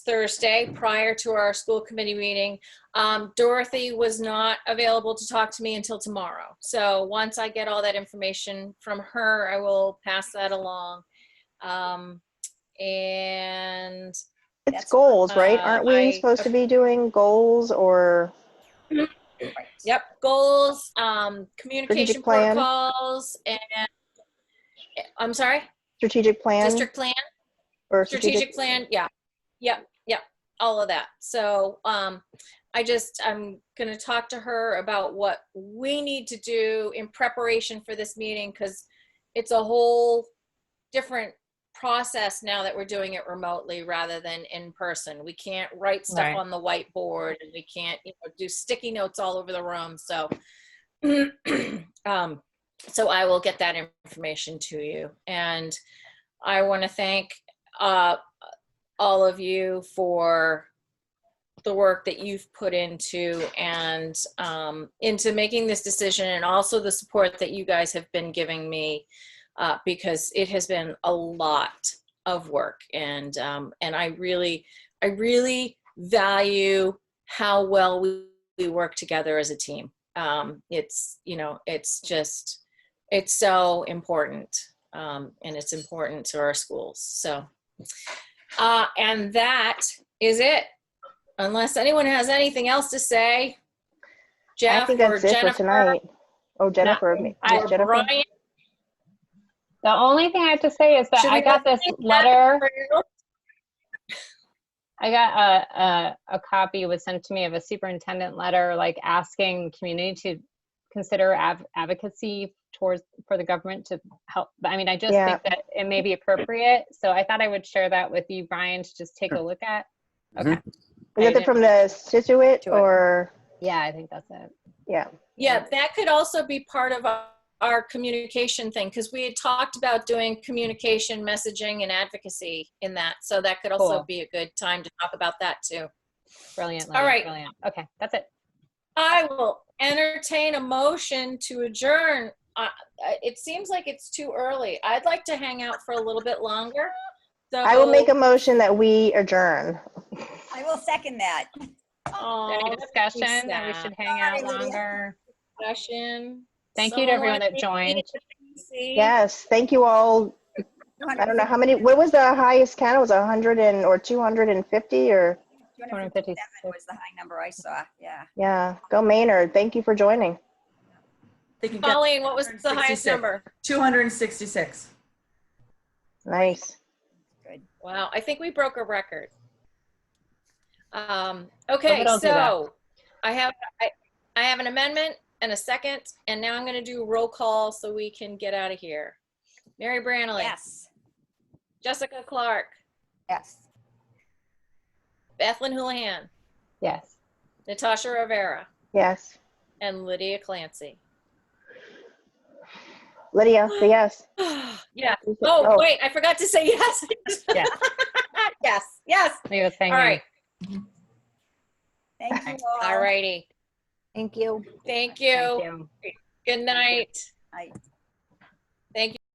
Thursday prior to our school committee meeting. Um, Dorothy was not available to talk to me until tomorrow. So once I get all that information from her, I will pass that along. Um, and It's That's- goals, right? uh, Aren't we I- supposed to be doing goals or, Yep, goals, um, communication Strategic plan. protocols and, I'm sorry, strategic plan? district plan? or strategic plan, yeah, yep, yep, all of that. So, um, I just, I'm gonna talk to her about what we need to do in preparation for this meeting, because it's a whole different process now that we're doing it remotely rather than in person. We can't write stuff Right. on the whiteboard, and we can't, you know, do sticky notes all over the room, so. Um, so I will get that information to you, and I want to thank uh, all of you for the work that you've put into and um, into making this decision and also the support that you guys have been giving me uh, because it has been a lot of work and um, and I really I really value how well we, we work together as a team. Um, it's you know it's just it's so important um, and it's important to our schools. So, uh, and that is it. Unless anyone has anything else to say, I Jeff think or that's it for Jennifer tonight. Oh, Jennifer, ma- I- yeah, or Jennifer, Brian. The only thing I have to say is that Should I we got go this to the letter, bathroom? I got a, a, a copy was sent to me of a superintendent letter, like asking the community to consider av- advocacy towards, for the government to help. But I mean, I just Yeah. think that it may be appropriate, so I thought I would share that with you, Brian, to just take a look at. Okay, is I it from the Situate or, yeah, I think that's it. yeah, Yeah, that could also be part of our, our communication thing because we had talked about doing communication, messaging, and advocacy in that. So that could also Cool. be a good time to talk about that too. Brilliant, All right. Lydia, brilliant. Okay, that's it. I will entertain a motion to adjourn. Uh, uh, It seems like it's too early. I'd like to hang out for a little bit longer. I will make So- a motion that we adjourn. I will second that. Aw, Any that makes me discussion that we sad. should hang out Bye, Lydia. longer? Discussion. Thank you to everyone Someone that joined. see? Yes, thank you all. I don't know how many, what was the highest count? It was 100 and, or 250 or, 257 Was the high number I saw, yeah. yeah, go Maynard. Thank you for joining. They can get Colleen, what was the highest 166. number? 266. Nice. Good. Wow, I think we broke a record. Um, okay, But I'll do that. so I have, I, I have an amendment and a second, and now I'm gonna do roll call so we can get out of here. Mary Brannely. Yes, Jessica Clark. yes. Bethlyn Houlihan. Yes. Natasha Rivera. Yes. And Lydia Clancy. Lydia, say yes. Yeah. Oh, wait, I forgot to say yes. Yes. Yes, yes. Leave us All hanging. right, Thank you all. all righty. Thank you. Thank Thank you. you. Good night. Bye.